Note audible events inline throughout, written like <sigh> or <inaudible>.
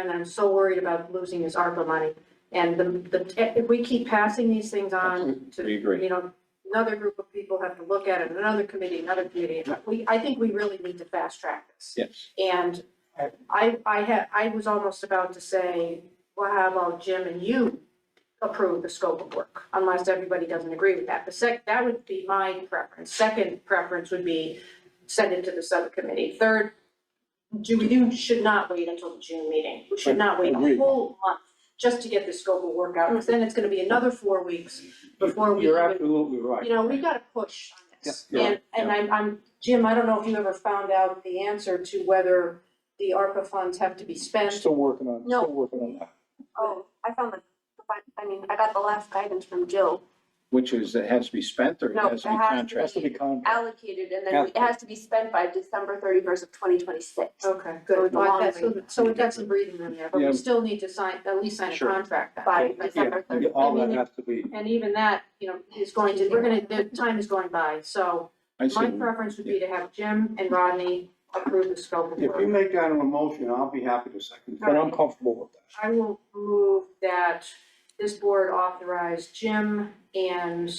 And I'm so worried about losing this ARPA money. And the, the, if we keep passing these things on to, We agree. you know, another group of people have to look at it, another committee, another committee. and We, I think we really need to fast track this. Yes. And I, I had, I was almost about to say, well, how about Jim and you approve the scope of work? Unless everybody doesn't agree with that. The sec, that would be my preference. Second preference would be send it to the subcommittee. Third, do, you should not wait until the June meeting. We should not wait a Agreed. whole month just to get the scope of work out, because then it's gonna be another four weeks before we. You're even- absolutely right. you know, we gotta push on this. Yeah, you're And, right, and I'm, I'm, Jim, I don't know if you ever found out the answer to whether the ARPA funds have to be spent. Still working on, No. still working on that. Oh, I found the, the fin- I mean, I got the last guidance from Jill, Which is, it has to be spent or it No, has to it has to be It has contracted? to be contract. allocated, and then we- it has to be spent by December thirty-first of twenty twenty-six. Okay, So good. it's a Well, long that's- So, so we've got some breathing room there, but Yeah. we still need to sign, at least sign a Sure. contract then. By But- December. Yeah, All that has to be, And even that, you know, is going to, we're gonna, the time is going by, so I my see. preference would be to have Jim and Rodney approve the scope of If you work. make that a motion, I'll be happy to second but that. I'm comfortable with that. I will move that this board authorize Jim and,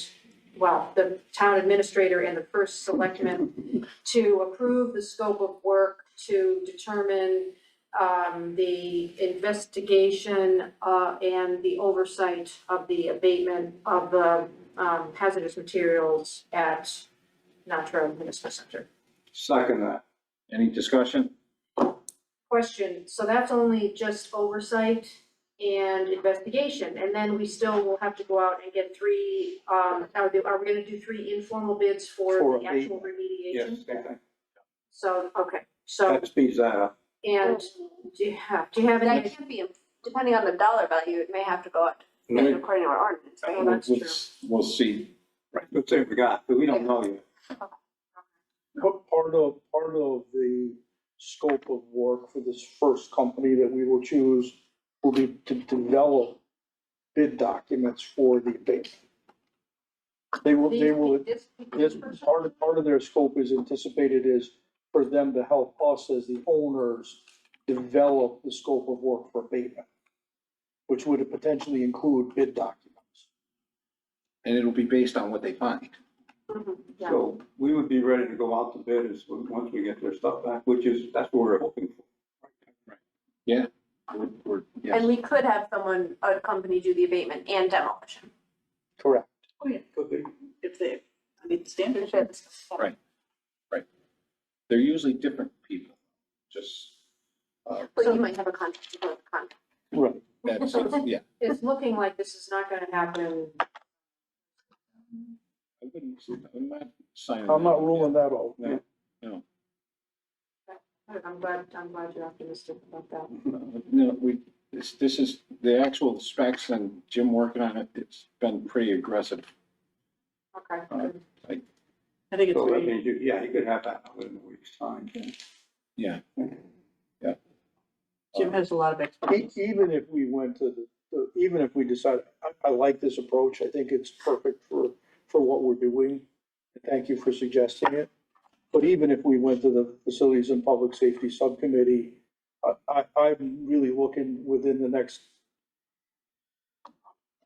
well, the town administrator and the first selectman to approve the scope of work to determine um, the investigation uh, and the oversight of the abatement of the um, hazardous materials at Natra Municipal Center. Second that. Any discussion? Question, so that's only just oversight and investigation, and then we still will have to go out and get three, um, are they, are we gonna do three informal bids for For the actual remediation? Yes, same thing. So, okay, so, that speeds that up. and do you have, do you have That any, can be, depending on the dollar value, it may have to go up, Let me- according to our ordinance, right? well, that's true. We'll see. Let's say we got, but we don't know yet. But part of, part of the scope of work for this first company that we will choose will be to develop bid documents for the abatement. They will, they will, this, part of, part of their scope is anticipated is for them to help us as the owners develop the scope of work for abatement, which would potentially include bid documents. And it'll be based on what they find. Mhm, yeah. So we would be ready to go out to bid as, once we get their stuff back, which is, that's what we're hoping for. We're- we're- yes. And we could have someone, a company do the abatement and demolition. Correct. Could be. if they, I mean, standards. Right. They're usually different people, just, uh, But you might have a contract, you have a contract. Right. that's, yeah. It's looking like this is not gonna happen, I wouldn't- I'm not signing I'm that. not ruling that out. No. I'm glad, I'm glad you're optimistic about that. No, No, we, this, this is, the actual specs and Jim working on it, it's been pretty aggressive. Okay, Uh, good. I think it's So that really, means, you- yeah, you could have that within a week's time. Jim has a lot of E- expertise. Even if we went to the, uh, even if we decide, I, I like this approach, I think it's perfect for, for what we're doing. Thank you for suggesting it. But even if we went to the Facilities and Public Safety Subcommittee, I, I, I'm really looking within the next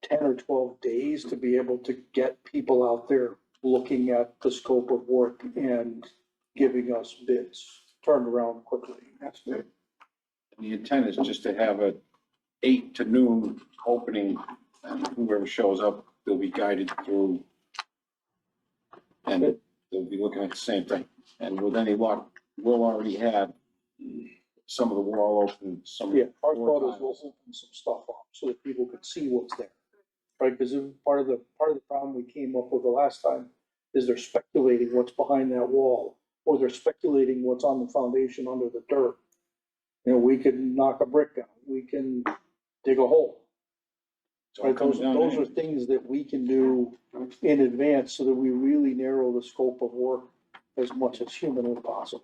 ten or twelve days to be able to get people out there looking at the scope of work and giving us bids, turned around quickly. That's it. The intent is just to have a eight to noon opening, and whoever shows up, they'll be guided through. And they'll be looking at the same thing, and with any luck, we'll already have some of the wall open, some of Yeah, the our floor thought is we'll tiles. open some stuff up so that people could see what's there. Right, because part of the, part of the problem we came up with the last time is they're speculating what's behind that wall, or they're speculating what's on the foundation under the dirt. You know, we can knock a brick down, we can dig a hole, So it right, comes those, down those are anyway. things that we can do in advance so that we really narrow the scope of work as much as humanly possible.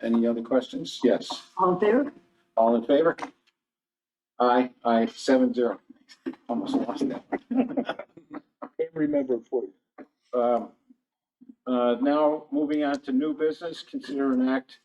Any other questions? Yes, All there? all in favor? Aye, aye, seven zero. <laughs> Almost lost that. Can't remember it for you. Um, uh, Now, moving on to new business, consider an act